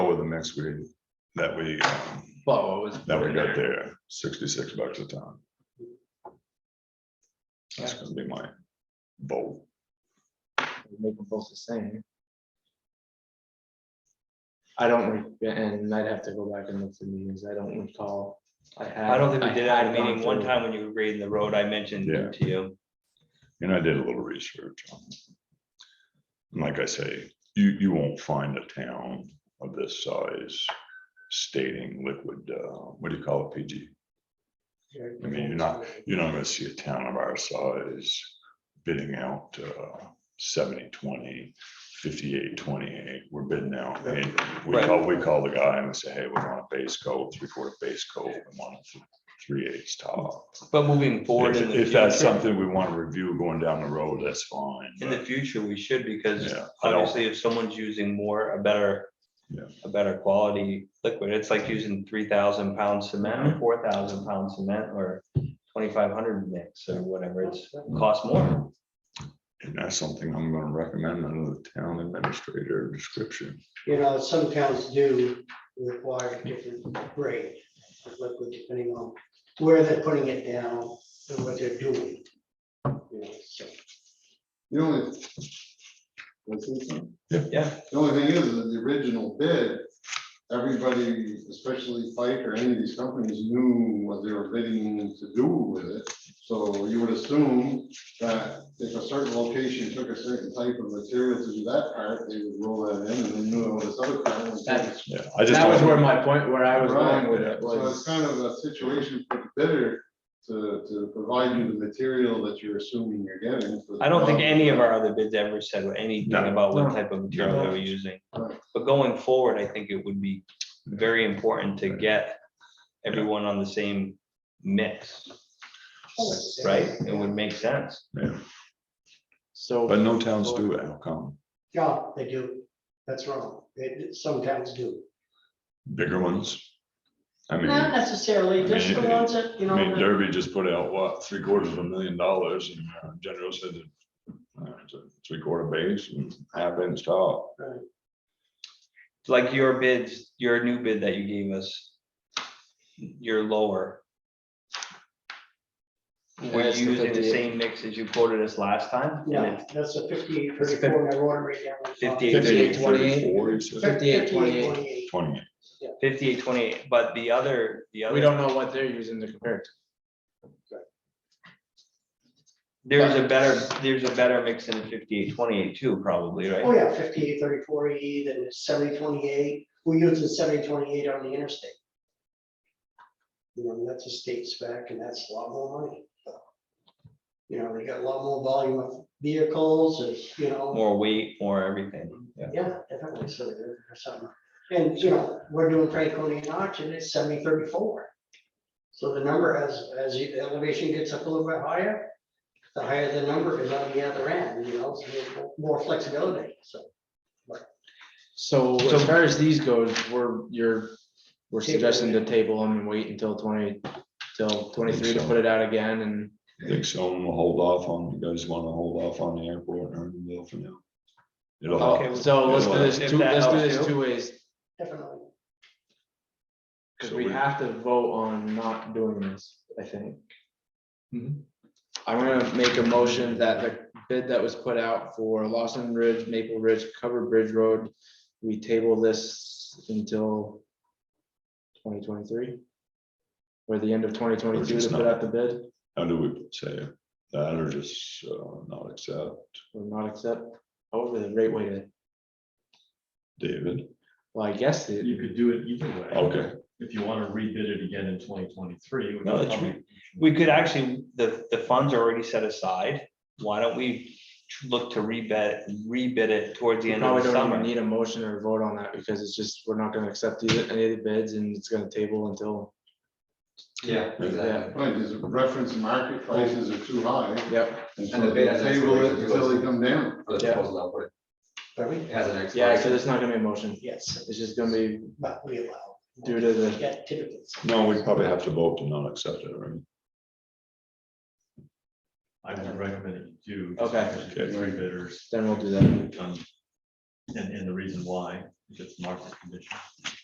insurance we, that we, um, Well, it was. that we got there, sixty-six bucks a ton. That's gonna be my vote. Make them both the same. I don't, re- and I'd have to go back and look through meetings, I don't recall. I don't think we did it at a had gone meeting. One through. time when you were grading the road, I mentioned Yeah. it to you. And I did a little research. on it. And Like I say, you, you won't find a town of this size stating liquid, uh, what do you call it, PG? I mean, you're not, you're not gonna see a town of our size bidding out uh, 70, 20, 58, 28. twenty-eight, we're bidding out. and We Right. call, we call the guy and we say, hey, we want a base coat, three-quarter base coat, we want three eighths top. But moving forward in If the if that's future, something we want to review going down the road, that's fine. in the but, future, we should because Yeah, I don't, obviously if someone's using more, a better, Yeah. a better quality liquid, it's like using three thousand pound cement, four thousand pound cement or twenty-five hundred mix or whatever. It's cost more. and that's something I'm gonna recommend under the town administrator description. You know, some towns do require different grade of liquid depending on where they're putting it down and what they're doing. You know, so, The only. let's see some. Yeah. The only thing is, that the original bid, everybody, especially Pike or any of these companies knew what they were bidding to do with it. So you would assume that if a certain location took a certain type of material to do that part, they would roll that in and they knew it was other part. was That's- Yeah, I just. That was don't- where my point, where I was Right, going with it So it's was, kind of a situation for the bidder to, to provide you the material that you're assuming you're getting. for the I don't think job. any of our other bids ever said anything No. about what No. type of material they were using. Right. But going forward, I think it would be very important to get everyone on the same mix, right? It would make sense. Yeah, But so, no towns do it, how come? Yeah, they do. That's wrong. They- Some towns do. Bigger ones? I mean. Not necessarily, just the ones that, you I mean, know, Derby just put out what, three quarters of a million dollars and uh, General said that. uh, it's a Three quarter base and half inch top. Like your bids, your new bid that you gave us, your lower. Were Yes, the you using the 58. same mix as you quoted us last time? yeah, that's a fifty-eight, thirty-four, and I wrote it right down. on the top. 58, 58, 28. 34, he said, 58, 28. 28. Twenty, Fifty-eight, twenty-eight, but the other, the we other, don't know what they're using to compare it to. there's a better, there's a better mix in fifty-eight, twenty-eight too, probably, right? Oh, yeah, fifty-eight, thirty-four, E, then it's seventy, twenty-eight. We're using seventy, twenty-eight on the interstate. You know, that's a state spec and that's a lot more money. You know, they got a lot more volume of vehicles and, you know, more weight, more everything. yeah, definitely, so there's something. And, you know, we're doing Franconia and Arch and it's seventy, thirty-four. So the number as, as the elevation gets up a little bit higher, the higher the number is on the other end, you know, so more flexibility, so. So So- as far as these goes, we're, you're, we're Table suggesting to it. table them and wait until twenty, till twenty-three to so. put it out again and. I think someone will hold off on, you guys wanna hold off on the airport and Irvingville for now? It'll help. Okay, Oh, So let's do if this two, that let's do helps this you. two ways, Definitely. because So we we- have to vote on not doing this, I think. I'm gonna make a motion that the bid that was put out for Lawson Ridge, Maple Ridge, Cover Bridge Road, we table this until twenty twenty-three? Or the end of twenty twenty-two to just put not- out the bid, How do we say that or just uh, not accept, or not accept, over the great way to, David? well, I guess it. You could do it either way. Okay, If you want to rebid it again in twenty twenty-three. No, that's We could actually, the, the funds are already set aside. Why don't we tr- look to rebid, rebid it towards the We end of probably the don't even summer? need a motion or vote on that because it's just, we're not gonna accept either, any of the bids and it's gonna table until, Yeah, exactly. Right, because reference market prices are too high. yep. And And so the they bid has an table it expiration until too, they come down. For the Yeah. proposal output, Pardon it me? has an expiration. Yeah, so there's not gonna be a motion. Yes, It's just gonna be but we allow. due to the, Yeah, typically. no, we probably have to vote to not accept it, right? I would recommend that you do. Okay. just because you get Three bidders. then we'll do that. um, And, and the reason why, because market conditions.